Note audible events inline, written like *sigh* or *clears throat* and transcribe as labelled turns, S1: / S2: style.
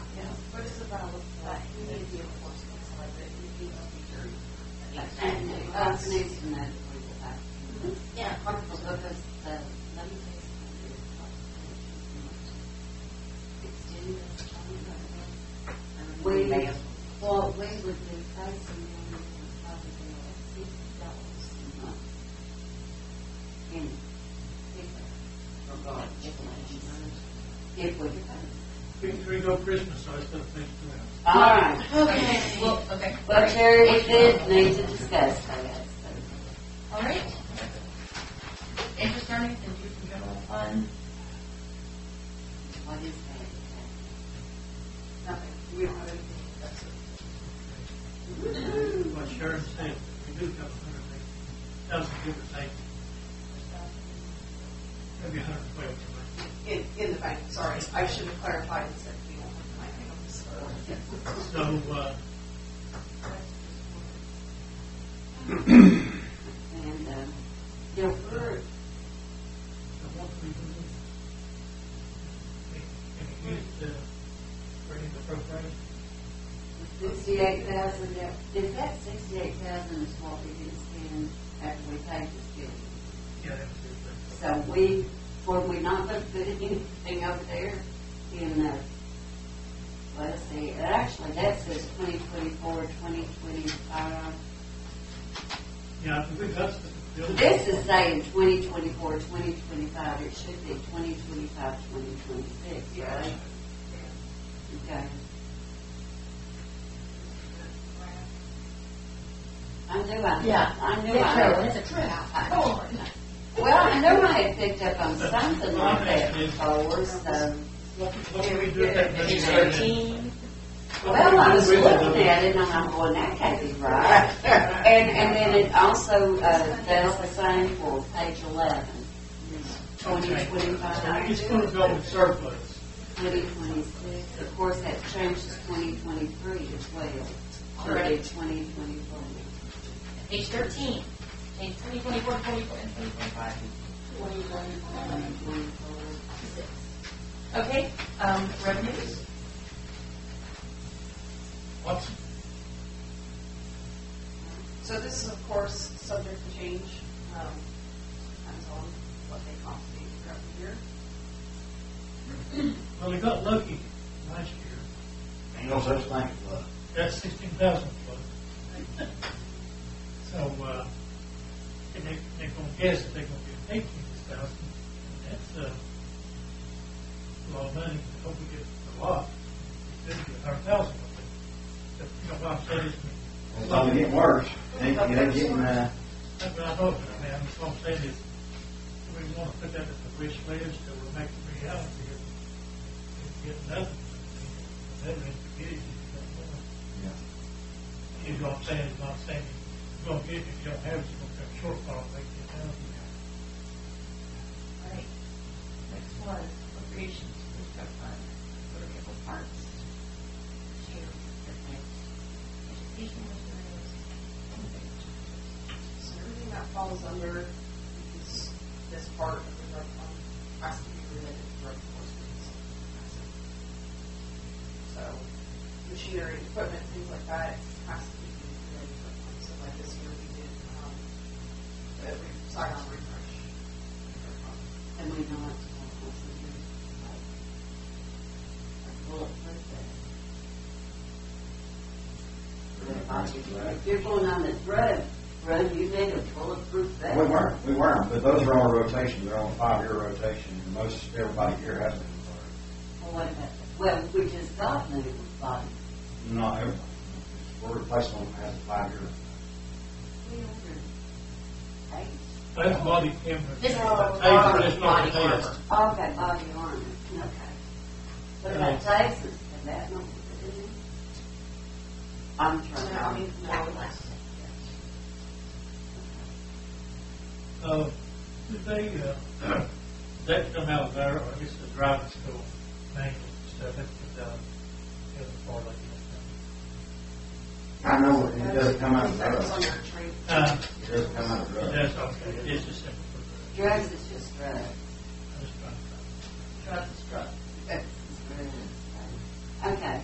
S1: resonates in that with the fact. Yeah, wonderful, because the, let me take some of your Sixteen, twenty, whatever. Way, well, way with the price and then we can probably like sixty dollars a month. In paper. For God. If we can.
S2: Things we go Christmas, so I still think to them.
S1: All right.
S3: Okay, well, okay,
S1: Well, Terry, it is need to discuss, I guess.
S3: all right. Interest earnings and due from general fund,
S1: What is that? Nothing. We don't have anything.
S2: What Sharon said, we do a couple hundred things, thousand different things. Maybe a hundred and twelve. tonight.
S4: in, in the bank, sorry, I should have clarified and said, you know, my hands.
S2: So, uh,
S1: And, um, you know, we're,
S2: so what we do? we- Can we use the, for any of the programs?
S1: sixty-eight thousand, if that sixty-eight thousand is what we did spend after we paid this bill.
S2: Yeah, that was it.
S1: So we, were we not gonna put anything over there in, uh, let's see, actually, that says twenty twenty-four, twenty twenty-five.
S2: Yeah, we got the building.
S1: This is saying twenty twenty-four, twenty twenty-five, it should be twenty twenty-five, twenty twenty-six, right? Okay. I knew I.
S3: Yeah.
S1: I knew
S3: It's
S1: I.
S3: a- it's a trip.
S1: I- Well, I knew I had picked up on something like that before, so.
S2: What, what do we do with that?
S3: page
S2: money?
S3: thirteen,
S1: Well, I was looking at it and I'm going, that can't be right. And, and then it also, uh, does the same for page eleven. Twenty
S2: Okay. So
S1: twenty-five.
S2: we just gonna go with surplus.
S1: 2026, of course, that changes 2023 as well, or
S3: Already.
S1: 2024.
S3: page thirteen, page twenty, twenty-four, twenty-four, and twenty, twenty-five. Okay, um, revenues,
S2: What's,
S4: So this is, of course, subject to change, um, depends on what they compensate for every year.
S2: well, we got lucky last year.
S5: Ain't no such thing as luck.
S2: That's sixteen thousand plus. So, uh, and they, they're gonna guess that they're gonna get eighteen thousand, and that's, uh, a lot of money, I hope we get a lot. It could be a hundred thousand, but, but, you know, what I'm saying, is-
S5: It's only getting worse. Ain't, it ain't getting, uh,
S2: That's what I hope, I mean, I'm just gonna say this, we wanna put that as a wish list, that will make it reality, and get nothing. That ain't the case, you know.
S5: yeah.
S2: You know what I'm saying, not saying, you don't get, it if you don't have it, you're gonna have a shortfall, like, you know.
S3: all right. Next one, appropriations, which got fund, motor vehicle parts, share, education materials.
S4: So everything that falls under this, this part of the drug fund has to be related to drug enforcement. So machinery, equipment, things like that has to be related to drug fund. So like this year we did, um, the re- sidearm refresh. drug fund.
S1: And we know it's going to be like, like bulletproof vest. If you're going on the road, road, you need a bulletproof vest.
S5: We weren't, we weren't, but those are all rotations, they're on a five-year rotation, and most, everybody here has them.
S1: Well, what about- Well, we just got new bodies.
S5: Not everybody. We're replacing them as a five-year.
S1: We ordered eight.
S2: That's body camera.
S3: This is
S2: Hey, but it's not
S3: body
S2: the
S3: armor.
S1: Okay, body armor, okay. What about taxes, and that number, I'm
S4: So
S1: trying to.
S4: now, I mean, now we last.
S2: test. Uh, did they, uh, *clears throat* that come out of there, or just the driving school, manual stuff, that's the, uh, the other part of it.
S5: I know it it doesn't come out of
S4: That was
S5: drugs.
S4: under trade.
S2: Uh,
S5: It doesn't come out of drugs.
S2: that's okay, it is just simple.
S1: Drugs is